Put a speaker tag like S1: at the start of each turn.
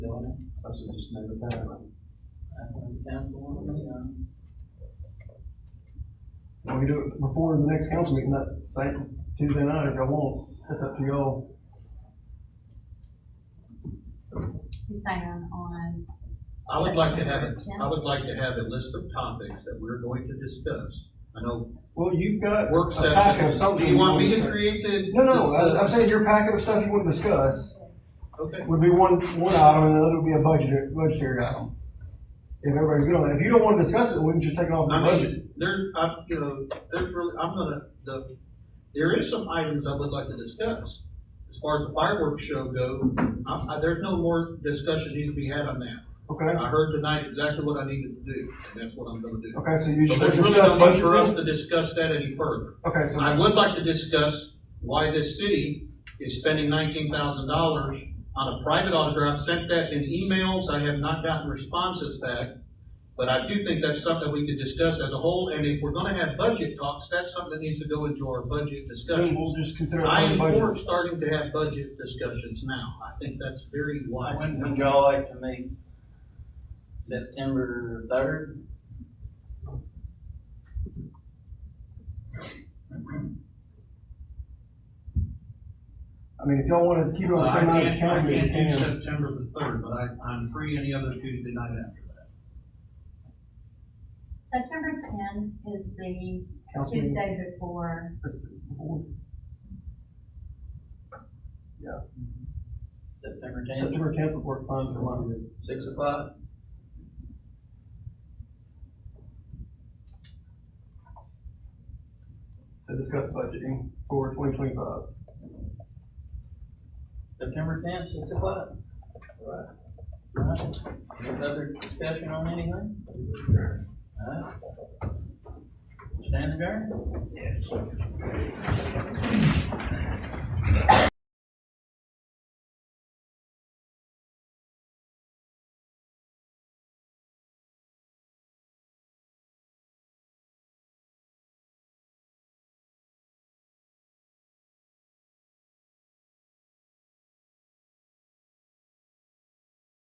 S1: I said, just name it that. We can do it before the next council meeting, that same Tuesday night if y'all want, that's up to y'all.
S2: You're saying on,
S3: I would like to have, it-
S2: September
S3: I would like to have a list of topics that we're going to discuss. I know
S1: Well, you've got.
S3: work
S1: a packet of
S3: session,
S1: something
S3: do you want me to
S1: wanna-
S3: create the?
S1: No, no, I- I'm saying your packet of stuff you want to discuss
S3: Okay,
S1: would be one, one item, and the other would be a budget, budgetary item. If everybody's good on that, if you don't want to discuss it, we can just take it off the
S3: I
S1: budget.
S3: mean, there, I, you know, there's really, I'm gonna, the, there is some items I would like to discuss. As far as the fireworks show go, I, I, there's no more discussion needs to be had on that.
S1: Okay,
S3: I heard tonight exactly what I needed to do, and that's what I'm gonna do.
S1: okay, so you
S3: So
S1: should
S3: there's really
S1: discuss
S3: no need for us
S1: budget.
S3: to discuss that any further.
S1: Okay, so.
S3: I would like to discuss why this city is spending nineteen thousand dollars on a private autograph, sent that in emails, I have not gotten responses back. But I do think that's something we could discuss as a whole, and if we're gonna have budget talks, that's something that needs to go into our
S1: Then
S3: budget discussion.
S1: we'll just consider it
S3: I
S1: part
S3: am
S1: of
S3: for
S1: budget.
S3: starting to have budget discussions now, I think that's very wise.
S4: When would y'all like to meet? September third?
S1: I mean, if y'all want to keep it on the same night as council meeting, you can.
S3: September the third, but I, I'm free any other Tuesday night after that.
S2: September ten is the
S1: Council meeting.
S2: Tuesday before,
S4: September tenth,
S1: September tenth would work fine for mine.
S4: six o'clock?
S1: to discuss budgeting for twenty twenty-five.
S4: September tenth, six o'clock? Alright. Any other discussion on anything? Alright. Stand adjourned?